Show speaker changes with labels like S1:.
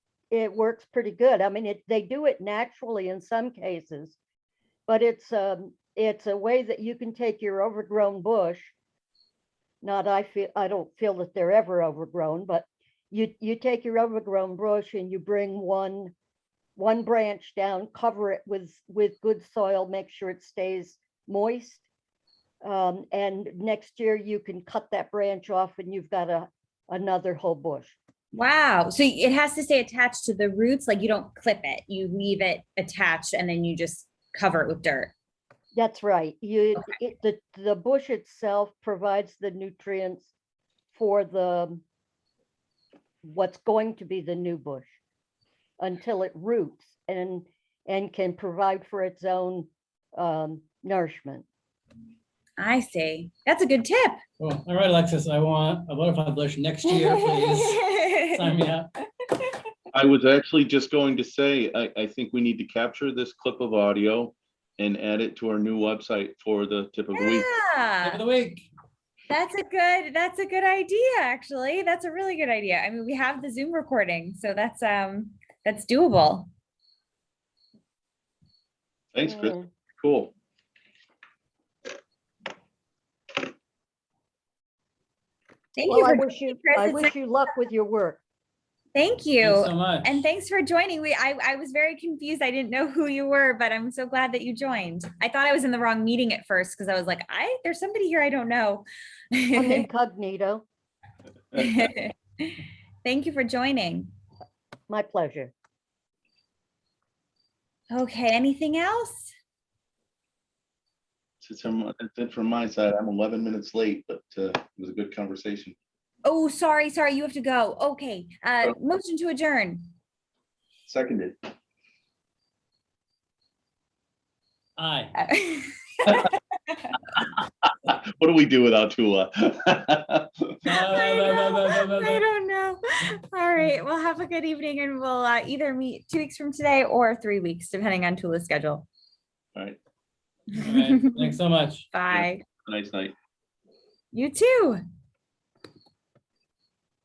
S1: it works pretty good. I mean, it, they do it naturally in some cases. But it's, um, it's a way that you can take your overgrown bush. Not, I feel, I don't feel that they're ever overgrown, but you, you take your overgrown bush and you bring one, one branch down, cover it with, with good soil, make sure it stays moist. Um, and next year you can cut that branch off and you've got a, another whole bush.
S2: Wow. So it has to stay attached to the roots. Like you don't clip it, you leave it attached and then you just cover it with dirt.
S1: That's right. You, it, the, the bush itself provides the nutrients for the, what's going to be the new bush until it roots and, and can provide for its own, um, nourishment.
S2: I see. That's a good tip.
S3: Well, all right, Alexis, I want a butterfly bush next year, please. Sign me up.
S4: I was actually just going to say, I, I think we need to capture this clip of audio and add it to our new website for the tip of the week.
S3: Tip of
S2: Yeah,
S3: the week.
S2: that's a good, that's a good idea, actually. That's a really good idea. I mean, we have the Zoom recording, so that's, um, that's doable.
S4: Thanks, Chris.
S1: Mm.
S4: Cool.
S2: Thank you.
S1: Well, I
S2: for
S1: wish you,
S2: Chris.
S1: I
S2: It's
S1: wish you luck with your work.
S2: Thank
S3: Thanks
S2: you.
S3: so much.
S2: And thanks for joining. We, I, I was very confused. I didn't know who you were, but I'm so glad that you joined. I thought I was in the wrong meeting at first because I was like, I, there's somebody here I don't know.
S1: I'm incognito.
S2: Thank you for joining.
S1: My pleasure.
S2: Okay, anything else?
S4: Since I'm- That's it from my side. I'm 11 minutes late, but uh, it was a good conversation.
S2: Oh, sorry, sorry, you have to go. Okay, uh, motion to adjourn.
S4: Seconded.
S3: Aye.
S2: Uh,
S4: What do we do without Tula?
S2: I
S3: Bye, bye, bye, bye,
S2: know,
S3: bye,
S2: I
S3: bye.
S2: don't know. All right, well, have a good evening and we'll uh, either meet two weeks from today or three weeks, depending on Tula's schedule.
S4: All right.
S3: All right, Thanks so much.
S2: Bye.
S4: Nice night.
S2: You too.